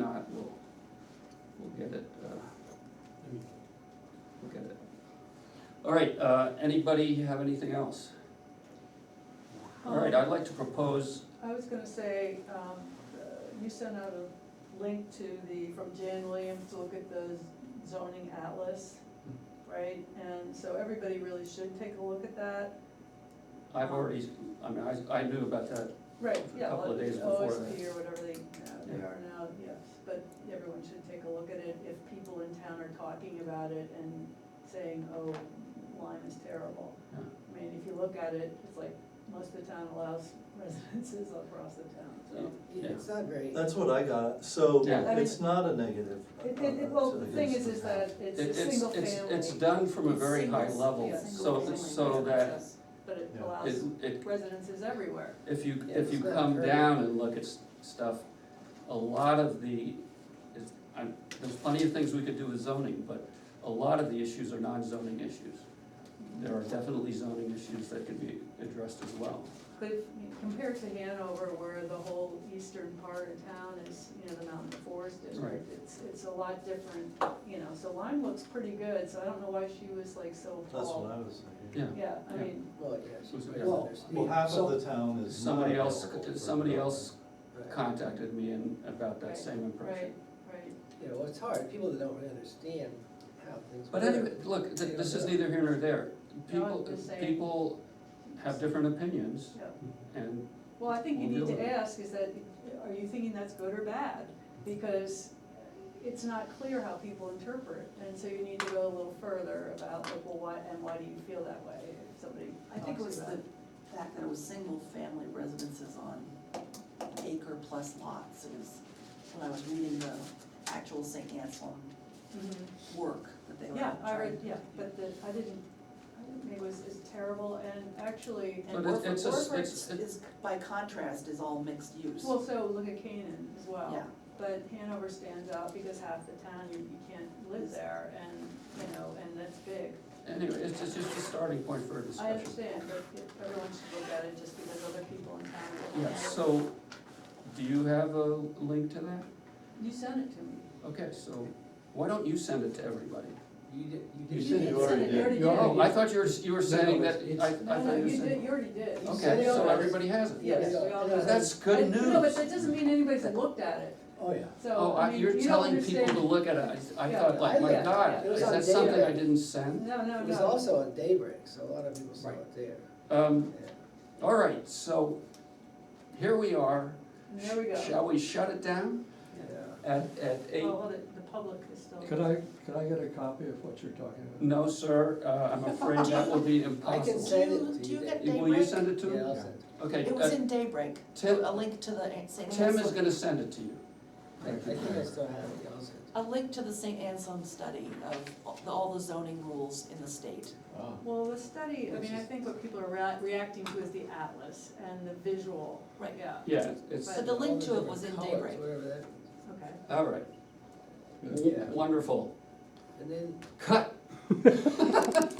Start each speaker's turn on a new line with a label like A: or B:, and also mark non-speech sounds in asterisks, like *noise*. A: uh, All right, uh, anybody have anything else? All
B: Um,
A: right, I'd like to propose,
B: I was gonna say, um, uh, you sent out a link to the, from Jan Williams to look at the zoning atlas, right? And so everybody really should take a look at that.
A: I've already, I mean, I, I knew about that,
B: Right, yeah,
A: Couple of
B: like
A: days before
B: OSP or whatever they, uh, they
A: Yeah.
B: are now, yes, but everyone should take a look at it if people in town are talking about it and saying, oh, Lyme is terrible.
A: Yeah.
B: I mean, if you look at it, it's like, most of the town allows *laughs* residences across the town, so.
A: Yeah.
C: It's not very.
D: That's what I got, so
A: Yeah.
B: I mean-
D: it's not a negative.
B: It, it, it- well, the thing is, is that it's
A: it-
B: a
A: it's,
B: single
A: it's,
B: family.
A: it's done from a
C: It's
A: very high
C: singles,
A: level,
B: yeah,
A: so,
B: single
A: so
C: family
A: that
C: residence.
B: But it
D: Yeah.
A: it,
B: allows
A: it,
B: residences everywhere.
A: if you,
C: Yeah,
A: if you
C: it's not
A: come
C: very-
A: down and look at s- stuff, a lot of the, it's, i there's plenty of things we could do with zoning, but a lot of the issues are non-zoning issues. There are definitely zoning issues that could be addressed as well.
B: But if you compare it to Hanover, where the whole eastern part of town is, you know, the mountain forest district, it's, it's a lot different, you know, so Lyme looks pretty good, so I don't know why she was like so
D: That's
B: tall.
D: what I was thinking.
A: Yeah,
B: Yeah, I
A: Yeah.
B: mean,
C: Well, yes,
A: So-
C: right,
A: Well,
C: there's-
D: Well, half
C: so-
D: of the town is not
A: somebody else,
D: available for
A: somebody
D: development.
A: else
C: right.
A: contacted me and about that
B: Right,
A: same impression.
B: right, right.
C: You know, it's hard, people that don't really understand how things.
A: But
C: work.
A: anyway, look, th-
C: Yeah.
A: this is neither here nor there.
B: No, I'm
A: People,
B: just saying.
A: people have different opinions
B: Yeah.
A: and,
B: Well, I think you
A: We'll deal
B: need to
A: with it.
B: ask, is that, are you thinking that's good or bad? Because it's not clear how people interpret, and so you need to go a little further about like, well, why, and why do you feel that way, if somebody
E: I think it
B: talks
E: was
B: about
E: the fact that it was single-family residences on acre plus lots, it was, when I was reading the actual St. Anselm
B: Mhm.
E: work that they were
B: Yeah,
E: trying.
B: I read, yeah, but the, I didn't, I didn't, think it was, it's terrible, and actually,
A: But
E: And
A: it's-
E: Orford,
A: it's a s-
E: Orford
A: it's- it-
E: is, by contrast, is all mixed use.
B: well, so look at Canaan as well.
E: Yeah,
B: But Hanover stands out because half the town, you, you can't live there, and, you know, and that's big.
A: anyway, it's just, it's just a starting point for a
B: I
A: discussion.
B: understand, but if everyone should look at it just because other people in town are looking
A: Yeah,
B: at it.
A: so, do you have a link to that?
B: You sent it to me.
A: Okay, so why don't you send it to everybody?
C: You did, you
D: You
C: did.
D: said you already
B: You
D: did.
B: already did.
A: Oh, I thought you were, you were
C: No,
A: saying that,
C: it's-
A: I, I
B: No, no,
A: thought you were
B: you did,
A: saying,
B: you already did. You sent
A: okay,
B: it
A: so
B: over.
A: everybody has it.
B: Yes, we all got it.
A: That's good
B: I- No, but
A: news.
B: that doesn't mean anybody's looked at it,
C: Oh, yeah.
A: Oh,
B: so, I
A: I,
B: mean,
A: you're
B: you don't
A: telling
B: understand.
A: people to look at it, I, I
B: Yeah,
A: thought like,
C: I
A: my
C: looked
A: God,
B: at it. It was
A: is
B: on
A: that something I
C: Daybreak.
A: didn't send?
B: No, no, no.
C: It was also on Daybreak, so a lot of people saw
A: Right.
C: it there.
A: Um,
C: Yeah.
A: all right, so, here we are.
B: And There we go. Oh,
A: Shall we shut it down
C: Yeah.
A: at, at eight?
B: Well, the, the public is still.
F: Could I, could I get a copy of what you're talking about?
A: No, sir, uh, I'm afraid that will be
C: I can
A: impossible.
C: send
E: Do
C: it to
E: you- do
C: you.
E: you
C: Dave.
E: get-
A: Will you send it to
C: Yeah,
A: him?
C: I'll send it.
A: Okay,
E: it was
A: uh,
E: in Daybreak,
A: Tim-
E: a link to the St.
A: Tim is
E: Anselm,
A: gonna send it to you.
C: I, I think I still have it, I'll send it.
E: a link to the St. Anselm study of all the zoning rules in the state.
D: Ah.
B: Well, the study, I
C: Which
B: mean, I
C: is-
B: think what people are rea- reacting to is the atlas and the visual,
E: Right.
B: yeah,
A: Yeah, it's,
B: But
E: the
C: All
E: link to it
C: different
E: was in
C: colours,
E: Daybreak.
C: Whatever that means.
B: okay.
A: all right,
C: Yeah.
A: wonderful,
C: And then
A: cut.